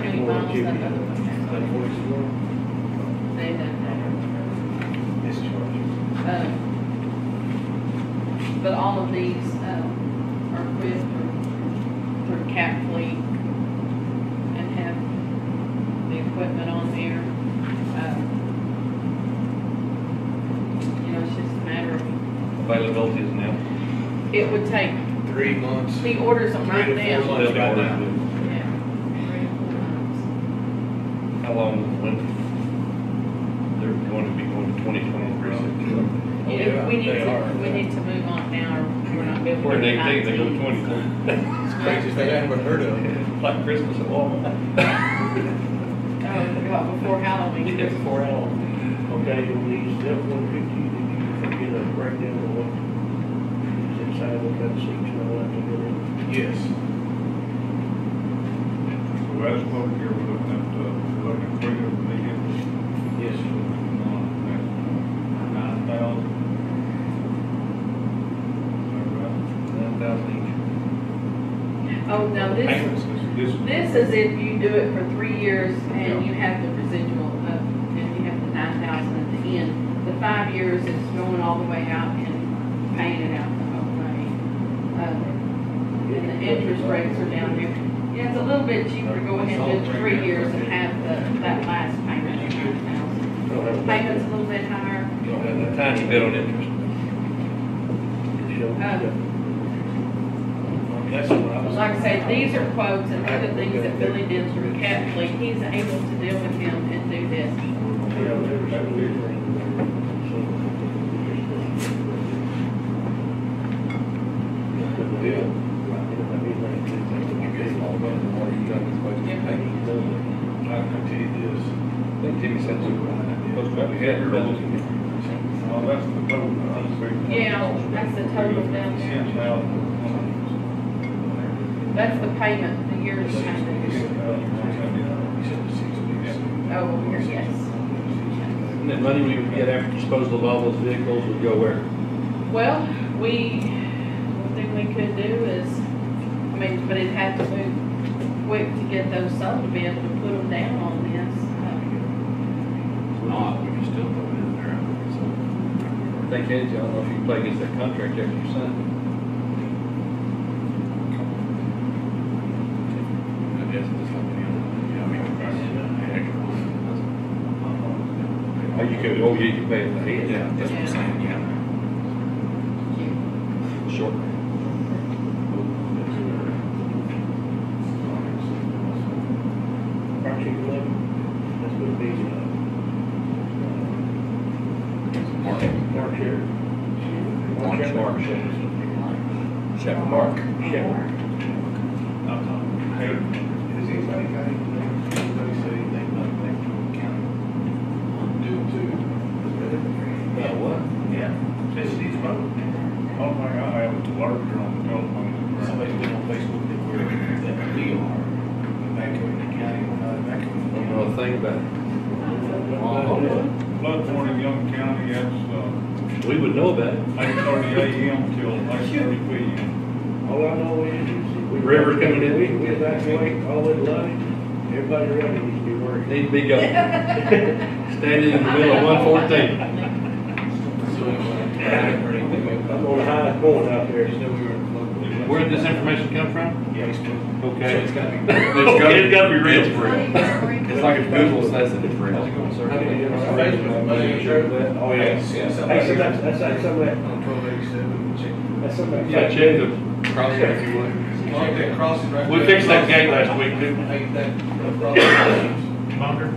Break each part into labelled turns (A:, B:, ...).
A: Jimmy, that voice, well,
B: They done
A: discharge.
B: better. Um, But all of these, um, are equipped for, for cap fleet and have the equipment on there. Um, You know, it's just a matter of,
C: Availability is now.
B: it would take,
A: Three months.
B: he orders them right
A: Three to
B: now.
A: four months right
B: Yeah,
A: now.
B: three or four months.
C: How long, when? They're going to be going to twenty twenty-three.
A: Oh,
B: Yeah,
A: yeah,
B: we need
A: they
B: to,
A: are.
B: we need to move on now, or we're not gonna.
C: Or they think they go to twenty.
A: It's crazy, they haven't heard of it.
C: Like Christmas at Walmart.
B: Oh, God, before Halloween.
C: It's four hours.
D: Okay, you'll need step one fifty, did you forget a breakdown of what is inside of that section, I'll have to get in.
A: Yes.
E: So that's what here, we're looking at, uh, looking at three different vehicles,
A: Yes.
E: nine thousand. Is
C: Nine thousand
B: Oh, no,
E: that right?
B: this,
E: This,
B: this is if you do it for three years and you have the residual of, and you have the nine thousand at the end. The five years is going all the way out and paying it out the whole way. Uh, And the interest rates are down here. Yeah, it's a little bit cheaper to go ahead and do three years and have the, that last payment of nine thousand.
D: Don't have
B: Payment's a little bit higher.
C: each. You'll have a tiny bit on interest.
D: to show.
B: Um,
A: That's what I was.
B: Like I said, these are quotes and other things that Billy did through Cat Fleet. He's able to deal with him and do this.
D: Yeah, I've never seen anything.
A: I can tell you this.
C: I think Jimmy said so.
E: that's about the header, well, that's the total, I'm sorry.
B: Yeah, that's the total down there.
E: Ten thousand.
B: That's the payment, the yearly payment.
A: He said the six weeks.
B: Oh, here, yes.
C: And that money we would get after disposal of all those vehicles would go where?
B: Well, we, one thing we could do is, I mean, but it'd have to move quick to get those sold to be able to put them down on this.
C: Not, we can still put it in there. Thank you, I don't know if you can play against that contract after you sign. I guess it's just like any other, yeah, I mean, the price is not extra. Oh, you could, oh, yeah, you pay it ahead. Yeah,
B: that's what I'm saying,
C: yeah. Short.
D: Project eleven, that's gonna be, uh,
C: Mark.
D: March here.
C: March, March. Chapter Mark.
D: Shepherd.
A: Has anybody got anything, anybody said anything about that from the county? Due to.
C: About what?
E: Yeah, this is, oh my God, I have a larger on the telephone.
A: Somebody's been on Facebook that we're, that we are evacuating the county,
D: uh,
A: we're not evacuating the
C: Don't know
A: county.
C: a thing about it.
E: Flood warning, Young County, that's, uh,
C: We would know about it.
E: eight thirty AM till eight thirty PM.
D: All Oh, I know is, is we.
C: River's coming in.
D: We, we evacuate all in line, everybody running needs to be worried.
C: Need to be go. Standing in the middle of one fourteen.
A: So anyway, I haven't heard anything about
D: I'm on the highest point out there.
A: Just know we were in flood.
C: Where did this information come from?
A: Yeah, Facebook. So
C: Okay.
A: it's gotta be.
C: It's gotta be real.
B: It's
C: like if Google says that it's real.
A: Oh, yes, yes.
D: Hey, so that's, that's, that's some of that,
A: On twelve eighty-seven, check.
D: that's some of that.
C: Yeah, check the,
A: Cross it if you would. Check that crossing right
C: we
A: there.
C: fixed that gate last week, didn't
A: Hey, that, that crossing.
C: we? Bunker.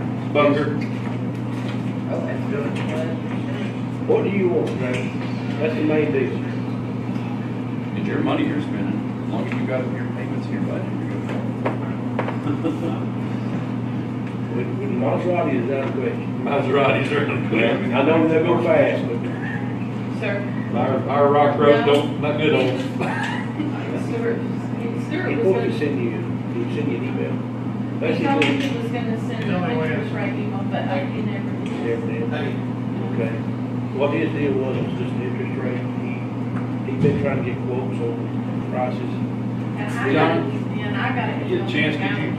D: What do you want, man? That's the main deal.
F: It's your money you're spending, as long as you got your payments in your budget, you're good.
D: We- we- Maserati is out of question.
C: Maseratis are in the
D: I know they go fast, but
B: Sir,
C: Our, our rock road don't, not good on.
B: Stuart, Stuart was
D: before
B: gonna
D: you send you, you send you an email.
B: He told me
D: Basically,
B: he was gonna send
E: No,
B: a
E: I went.
B: picture right email, but I he never did.
D: everything.
A: Hey,
D: Okay. What his deal was, was just the interest rate. He, he been trying to get quotes on prices.
B: And I got,
C: John,
B: and I got it.
C: get a chance, could you